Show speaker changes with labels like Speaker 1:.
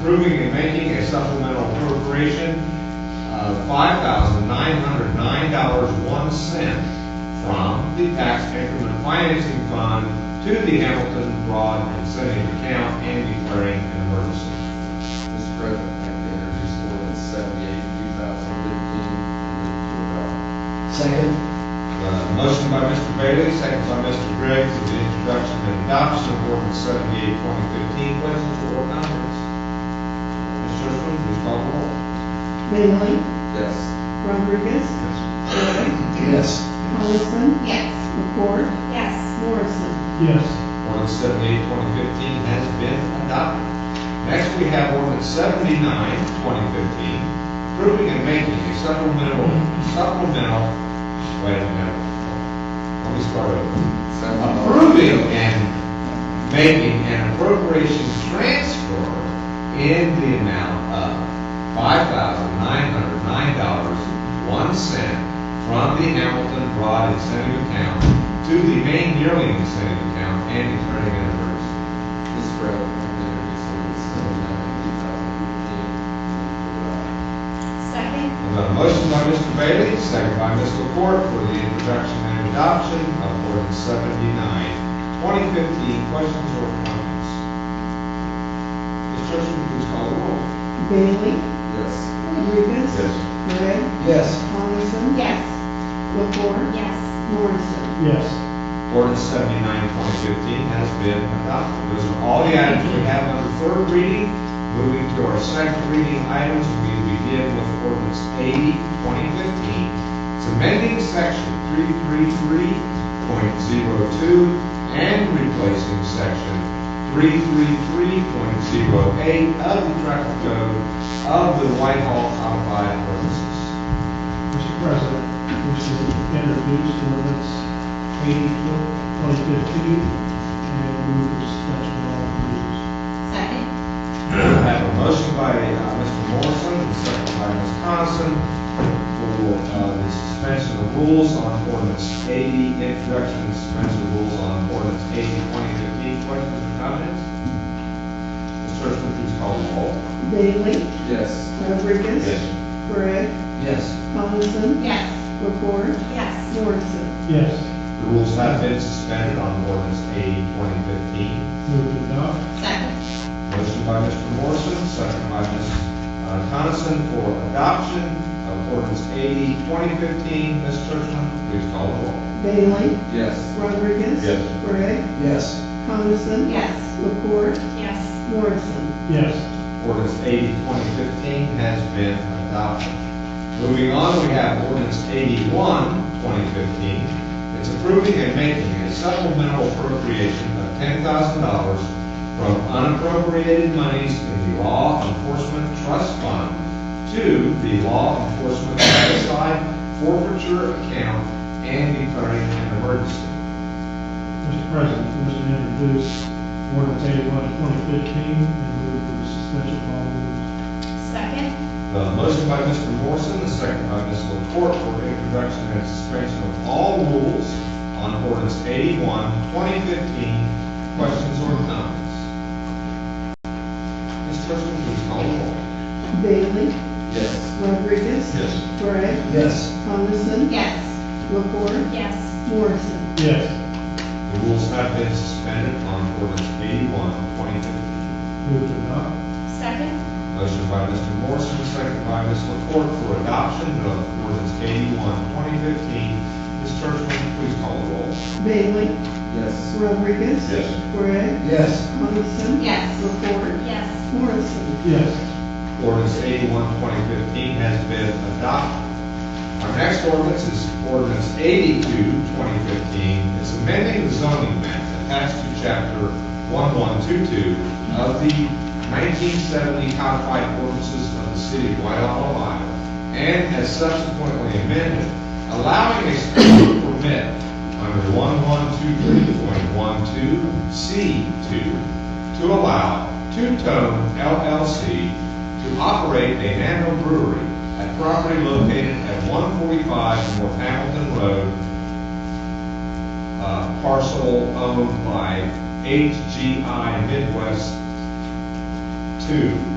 Speaker 1: approving and making a supplemental appropriation of five thousand nine hundred nine dollars one cent from the tax increment financing fund to the Hamilton Broad and Setting account and declaring an emergency.
Speaker 2: Mr. President, I think the introduce ordinance seventy-eight, two thousand fifteen, and
Speaker 3: Second.
Speaker 1: Uh, Motion by Mr. Bailey, second by Mr. Gregg, for the introduction and adoption of ordinance seventy-eight, twenty fifteen. Questions or comments? Ms. Churchman, please call the roll.
Speaker 4: Bailey?
Speaker 2: to adopt. Yes.
Speaker 4: Rodriguez? Gray?
Speaker 3: Yes.
Speaker 4: Coniston?
Speaker 5: Yes.
Speaker 4: McCord?
Speaker 5: Yes.
Speaker 4: Morrison?
Speaker 6: yes,
Speaker 1: Ordinance seventy-eight, twenty fifteen has been adopted. Next, we have ordinance seventy-nine, twenty fifteen, approving and making a supplemental, supplemental, wait a minute. Let me start over.
Speaker 2: Seventy-nine.
Speaker 1: approving and making an appropriation transfer in the amount of five thousand nine hundred nine dollars, one cent from the Hamilton Broad Incentive Account to the main yearly incentive account and declaring an emergency.
Speaker 2: Mr. President, I think the introduce ordinance seventy-nine, two thousand fifteen, and to adopt.
Speaker 5: Second.
Speaker 1: I've got a motion by Mr. Bailey, second by Ms. LaPorte for the introduction and adoption of ordinance seventy-nine, twenty fifteen. Questions or comments? Ms. Churchman, please call the roll.
Speaker 4: Bailey?
Speaker 2: Yes.
Speaker 4: Rodriguez? Gray?
Speaker 3: Yes.
Speaker 4: Coniston?
Speaker 5: Yes.
Speaker 4: McCord?
Speaker 5: Yes.
Speaker 4: Morrison?
Speaker 6: yes,
Speaker 1: Ordinance 79, 2015 has been adopted. Those are all the items we have under third reading. Moving to our second reading items, we begin with ordinance 80, 2015. It's amending section 333.02 and replacing section 333.08 of the traffic code of the Whitehall Codified Ordinances.
Speaker 6: Mr. President, this is introduced ordinance eighty, twenty fifteen, and move the suspension of all rules.
Speaker 5: Second.
Speaker 1: I have a motion by uh, Mr. Morrison, and second by Ms. Coniston, for uh, the suspension of rules on ordinance 80, introduction and suspension of rules on ordinance 80, 2015. Questions or comments? Ms. Churchman, please call the roll.
Speaker 4: Bailey?
Speaker 2: Yes.
Speaker 4: Rodriguez? Gray?
Speaker 3: Yes.
Speaker 4: Coniston?
Speaker 5: Yes.
Speaker 4: McCord?
Speaker 5: Yes.
Speaker 4: Morrison?
Speaker 6: Yes,
Speaker 1: The rules have been suspended on ordinance 80, 2015.
Speaker 6: move to adopt,
Speaker 5: Second.
Speaker 1: Motion by Mr. Morrison, second by Ms. uh, Coniston for adoption of ordinance 80, 2015. Ms. Churchman, please call the roll.
Speaker 4: Bailey?
Speaker 2: Yes.
Speaker 4: Rodriguez?
Speaker 1: Yes.
Speaker 4: Gray?
Speaker 3: Yes.
Speaker 4: Coniston?
Speaker 5: Yes.
Speaker 4: McCord?
Speaker 5: Yes.
Speaker 4: Morrison?
Speaker 6: yes,
Speaker 1: Ordinance 80, 2015 has been adopted. Moving on, we have ordinance 81, 2015. It's approving and making a supplemental appropriation of $10,000 from unappropriated monies in the Law Enforcement Trust Fund to the Law Enforcement Side Forfeiture Account and declaring an emergency.
Speaker 6: Mr. President, this is introduced ordinance eighty-one, twenty fifteen, and move the suspension of all rules.
Speaker 5: Second.
Speaker 1: The motion by Mr. Morrison, the second by Ms. LaPorte for introduction and suspension of all rules on ordinance 81, 2015. Questions or comments? Ms. Churchman, please call the roll.
Speaker 4: Bailey?
Speaker 2: Yes.
Speaker 4: Rodriguez?
Speaker 1: Yes.
Speaker 4: Gray?
Speaker 3: Yes.
Speaker 4: Coniston?
Speaker 5: Yes.
Speaker 4: McCord?
Speaker 5: Yes.
Speaker 4: Morrison?
Speaker 6: Yes,
Speaker 1: The rules have been suspended on ordinance 81, 2015.
Speaker 6: move to adopt,
Speaker 5: Second.
Speaker 1: Motion by Mr. Morrison, second by Ms. LaPorte for adoption of ordinance 81, 2015. Ms. Churchman, please call the roll.
Speaker 4: Bailey?
Speaker 2: Yes.
Speaker 4: Rodriguez?
Speaker 1: Yes.
Speaker 4: Gray?
Speaker 3: Yes.
Speaker 4: Coniston?
Speaker 5: Yes.
Speaker 4: McCord?
Speaker 5: Yes.
Speaker 4: Morrison?
Speaker 6: yes,
Speaker 1: Ordinance 81, 2015 has been adopted. Our next ordinance is ordinance 82, 2015. It's amending the zoning map attached to chapter 1122 of the 1970 codified ordinances of the city of Whitehall, Ohio, and as subsequently amended, allowing a special permit under 1123.12C2 to allow Two Tone LLC to operate a nano brewery at property located at 145 North Hamilton Road, uh, parcel owned by HGI Midwest 2